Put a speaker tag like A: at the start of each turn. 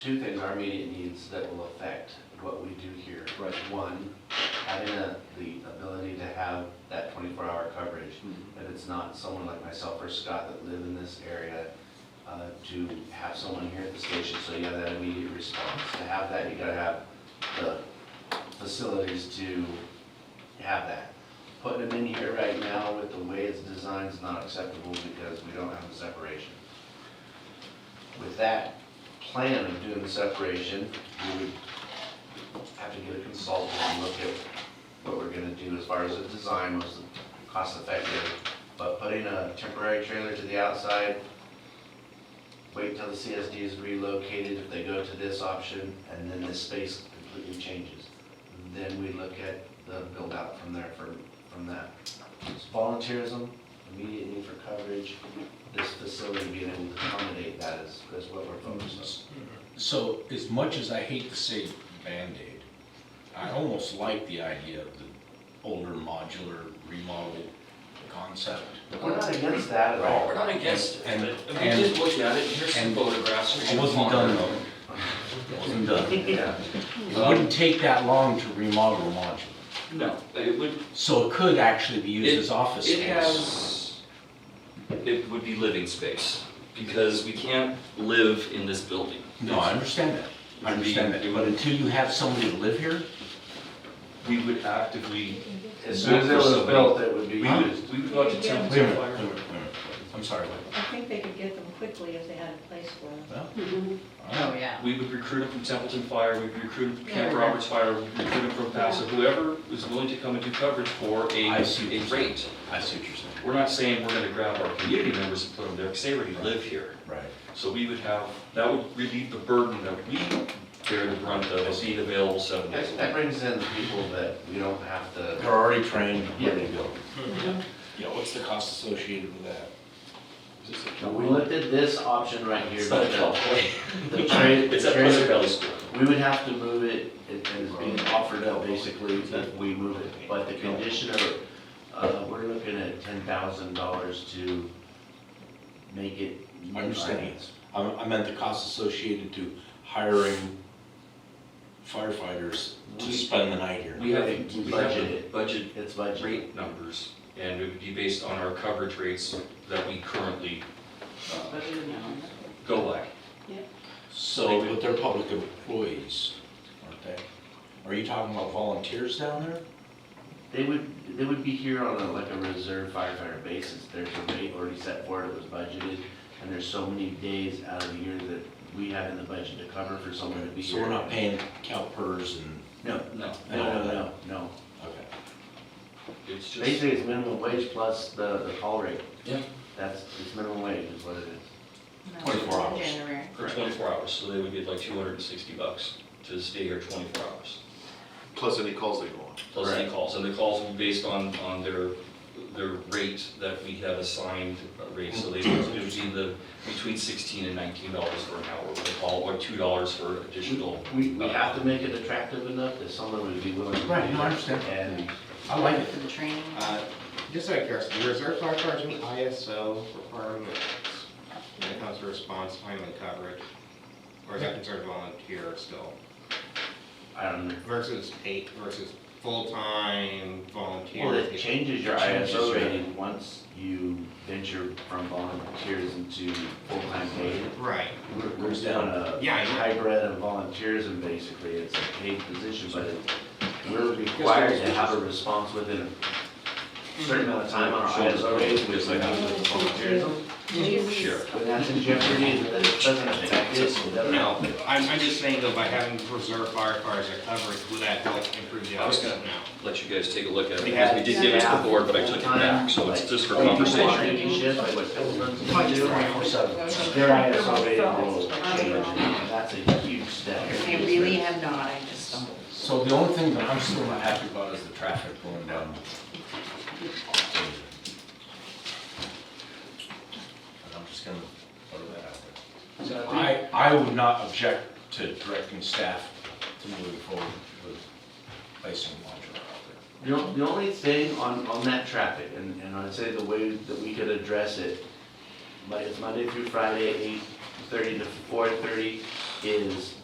A: two things, our immediate needs that will affect what we do here.
B: Right.
A: One, having a- the ability to have that twenty-four hour coverage.
B: Mhm.
A: If it's not someone like myself or Scott that live in this area, uh, to have someone here at the station, so you have that immediate response. To have that, you gotta have the facilities to have that. Putting them in here right now with the way it's designed is not acceptable because we don't have the separation. With that plan of doing the separation, we would have to get a consultant and look at what we're gonna do as far as the design was cost effective. But putting a temporary trailer to the outside, wait until the CSD is relocated, if they go to this option, and then this space completely changes. Then we look at the build out from there, from, from that. It's volunteerism, immediate need for coverage, this facility being able to accommodate that is, is what we're focused
C: So as much as I hate to say Band-Aid, I almost like the idea of the older modular remodel concept.
A: on. We're not against that at all.
D: We're not against it,
C: And-
D: but we
C: and-
D: just looked at it, here's some
C: and-
D: photographs. here's
C: It
D: some
C: wasn't done
D: photographs.
C: though. It wasn't done.
A: Yeah.
C: It wouldn't take that long to remodel a modular.
D: No, it would,
C: So it could actually be used as office
D: it
C: space.
D: has, it would be living space, because we can't live in this building.
C: No, I understand that. I understand that. But until you have somebody to live here,
E: We would actively.
A: As soon as it was built, it would be
E: We
A: used.
E: would, we would go out to
C: wait a
E: temp
C: minute, wait
E: fire.
C: a minute, wait a minute. I'm sorry, wait.
F: I think they could get them quickly if they had a place for them.
C: Well, all right.
G: Oh, yeah.
E: We would recruit them from Templeton Fire, we'd recruit them from Camp
G: Yeah.
E: Roberts Fire, we'd recruit them from Paso, whoever was willing to come and do coverage for a,
C: I see.
E: a rate.
C: I see what you're saying.
E: We're not saying we're gonna grab our community members and put them there, because they already live here.
C: Right.
E: So we would have, that would relieve the burden that we bear the brunt of, of being available seven days
A: That
E: a
A: that
E: week.
A: brings in the people that we don't have to,
C: They're already trained, ready to go.
B: Mm-hmm. Yeah, what's the cost associated with that? Is this a
A: we looked at this option right here,
E: It's not
A: but
E: a job,
A: the, the trade,
E: it's at Pleasant Valley School.
A: we would have to move it, it is being offered up basically if we move it, but the condition of, it, uh, we're looking at ten thousand dollars to make it.
B: I understand. I, I meant the cost associated to hiring firefighters to
E: We-
B: spend the night here.
E: We have,
A: Right,
E: we have a
A: budgeted.
E: budget
A: It's budget.
E: rate numbers, and it would be based on our coverage rates that we currently uh, go by.
B: So, but they're public employees, aren't they? Are you talking about volunteers down there?
A: They would, they would be here on a, like a reserve firefighter basis, there's a rate already set for it, it was budgeted, and there's so many days out of the year that we have in the budget to cover for someone to be
B: So
A: here.
B: we're not paying CalPERS and,
A: No,
E: No,
A: no, no, no, no,
B: okay.
E: it's just,
A: basically it's minimum wage plus the, the call rate.
E: Yeah.
A: That's, it's minimum wage is what it is.
B: 24 hours.
G: January.
E: for 24 hours, so they would get like 260 bucks to stay here 24 hours.
H: Plus any calls they go on.
E: Plus any calls, and the calls would be based on, on their, their rate that we have assigned uh, rate, so they, it would be the, between 16 and 19 dollars for an hour for the call, or 2 dollars for additional.
A: We, we have to make it attractive enough that someone would be willing to do that.
C: Right, no, I understand.
A: And
C: I like it.
G: For the training.
I: Uh, Just out of curiosity, the reserve firefighters meet ISO requirements when it comes to response time and coverage? Or is that considered volunteer still?
A: I don't know,
I: Versus eight versus full-time volunteer?
A: well, it changes your
I: Changes
A: ISO
I: your-
A: rating once you venture from volunteers into full-time paid.
I: Right,
A: We're, we're down a
I: Yeah, I know.
A: hybrid of volunteerism, basically, it's a paid position, but it- we're required to have a response within a certain amount of time on our ISO rating, which is like volunteerism.
G: Sure.
A: When that's in jeopardy, then it doesn't affect it, so it doesn't.
I: no, I'm, I'm just saying though, by having reserve firefighters at coverage, will that help improve the
E: I was
I: outcome
E: gonna-
I: now?
E: Let you guys take a look at it,
I: We
E: because
I: have-
E: we did give it to the board, but I took it back, so it's just
A: oh,
E: for conversation.
A: Their ISO rating will change, and that's a huge step.
G: I really have not, I just stumbled.
C: So the only thing that I'm still not happy about is the traffic going down. And I'm just gonna throw that out there. I, I would not object to directing staff to moving forward with placing a modular out there.
A: The, on- the only thing on, on that traffic, and, and I'd say the way that we could address it, but it's Monday through Friday, eight thirty to four thirty. is